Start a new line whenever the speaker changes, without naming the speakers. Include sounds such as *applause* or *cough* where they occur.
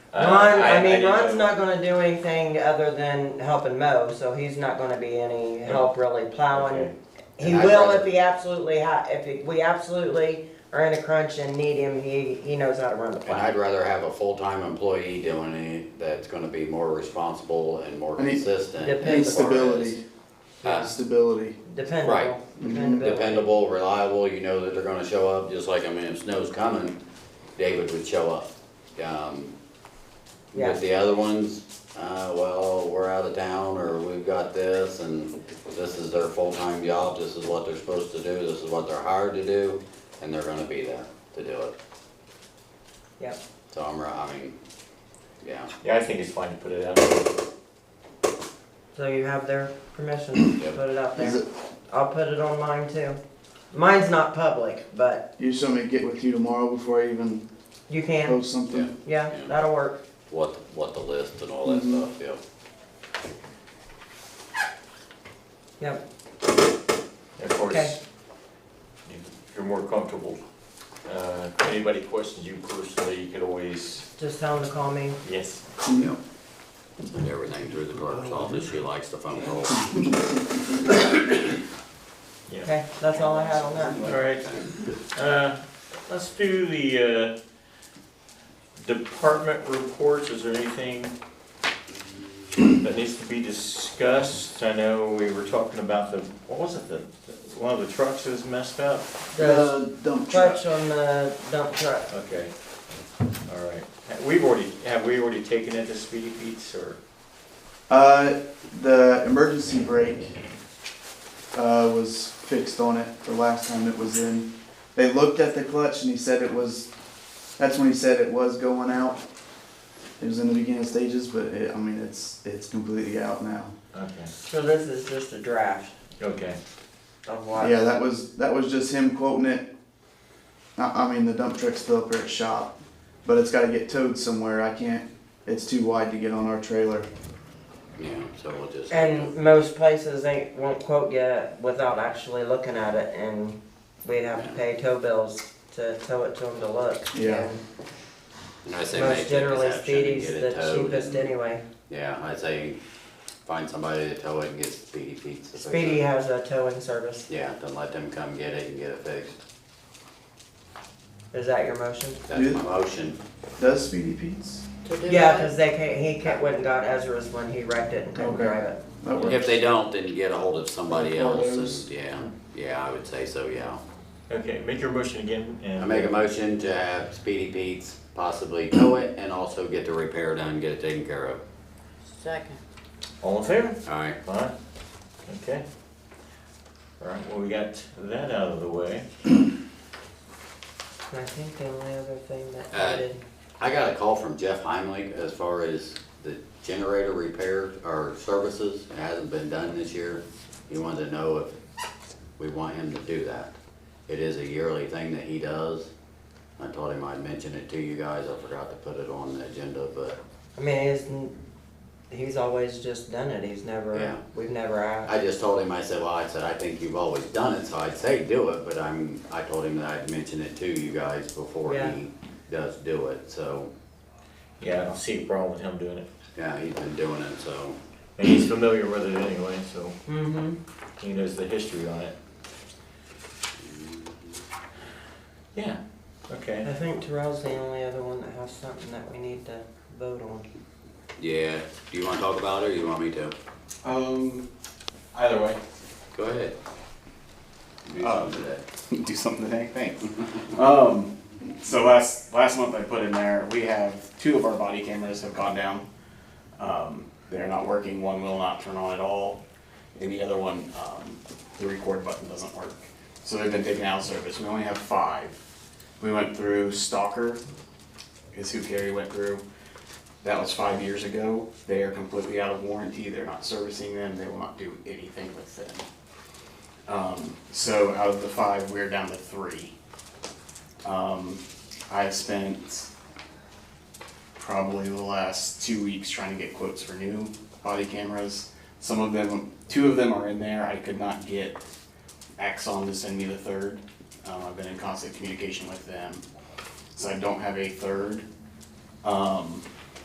Uh,
Ron, I, mean,
didn't
Ron's
know.
not going to do anything other than helping mow, so he's not going to be any help really plowing.
Okay.
He
And I'd
will
rather-
if he absolutely ha- if he- we absolutely are in a crunch and need him. He he knows how to run the
And
plow.
I'd rather have a full-time employee doing it that's gonna be more responsible and more
I need-
consistent.
Depends.
as
Needs
far as-
stability.
Huh?
Stability.
Dependable,
Right.
dependability.
Dependable, reliable, you know that they're gonna show up, just like, I mean, if snow's coming, David would show up. Um,
Yeah.
With the other ones, uh, well, we're out of town, or we've got this, and this is their full-time job, this is what they're supposed to do, this is what they're hired to do, and they're gonna be there to do it.
Yep.
So I'm, ri- I mean, yeah,
Yeah, I think it's fine to put it out.
So you have their permission to
Yep.
put it out
Is
there.
it,
I'll put it on mine too. Mine's not public, but
you just want me to get with you tomorrow before I even
you can.
post something?
Yeah,
Yeah.
that'll work.
what, what the list and all that
Mm-hmm.
Mhm.
stuff, yeah.
Yep.
Of course,
Okay.
if you're more comfortable. Uh, if anybody questions you personally, you could always,
Just tell them to call me.
yes.
Yep. And everything through the clerk's office, she likes the phone roll.
Yeah.
Okay, that's all I had on that.
All right. Uh, let's do the, uh, department reports. Is there anything that needs to be discussed? I know we were talking about the, what was it, the, one of the trucks is messed up?
The
The dump truck.
clutch on the dump truck.
Okay, all right. We've already, have we already taken it to Speedy Pete's or?
Uh, the emergency brake uh, was fixed on it the last time it was in. They looked at the clutch and he said it was. That's when he said it was going out. It was in the beginning stages, but it, I mean it's it's completely out now.
Okay.
So this is just a draft
Okay.
of what?
Yeah, that was that was just him quoting it. I, I mean the dump truck's still up at his shop, but it's got to get towed somewhere. I can't. It's too wide to get on our trailer.
Yeah, so we'll just.
And most places they won't quote you without actually looking at it, and we'd have to pay tow bills to tow it to them to look.
Yeah.
And
And I say make
Most
the
generally,
exception and
Speedy's
get it
the
towed
cheapest
and-
anyway.
Yeah, I say find somebody to tow it and get Speedy Pete's. to fix it.
Speedy has a towing service.
Yeah, then let them come get it and get it fixed.
Is that your motion?
That's my motion.
Does Speedy Pete's?
Yeah, cause they can't, he can't, went and got Ezra's when he wrecked it and couldn't
Okay.
drive it.
That works.
If they don't, then get a hold of somebody
Call
else
those.
and, yeah, yeah, I would say so, yeah.
Okay, make your motion again and.
I make a motion to have Speedy Pete's possibly tow it and also get the repair done, get it taken care of.
Second.
All in favor?
Alright,
Fine, okay. All right, well, we got that out of the way.
And I think the only other thing that
Uh,
I did,
I got a call from Jeff Heimlich as far as the generator repair or services. It hasn't been done this year. He wanted to know if we want him to do that. It is a yearly thing that he does. I told him I'd mention it to you guys. I forgot to put it on the agenda, but
I mean, he's, n- he's always just done it, he's
Yeah.
never, we've never asked.
I just told him, I said, well, I said, I think you've always done it, so I'd say do it, but I'm, I told him that I'd mention it to you guys before
Yeah.
he does do it, so,
Yeah, I don't see a problem with him doing it.
yeah, he's been doing it, so.
And he's familiar with it anyway, so
Mm-hmm.
he knows the history on it. Yeah, okay.
I think Terrell's the only other one that has something that we need to vote on.
Yeah, do you wanna talk about it or you want me to?
Um, either way.
Go ahead. Do
Uh,
something today.
*laughs* Do something today, thanks. um, so last last month I put in there, we have two of our body cameras have gone down. Um, they're not working. One will not turn on at all, and the other one, um, the record button doesn't work. So they've been taken out of service. We only have five. We went through Stalker, is who Carrie went through. That was five years ago. They are completely out of warranty. They're not servicing them. They will not do anything with them. Um, so out of the five, we're down to three. Um, I've spent probably the last two weeks trying to get quotes for new body cameras. Some of them, two of them are in there. I could not get Axon to send me the third. Um, I've been in constant communication with them, so I don't have a third. Um,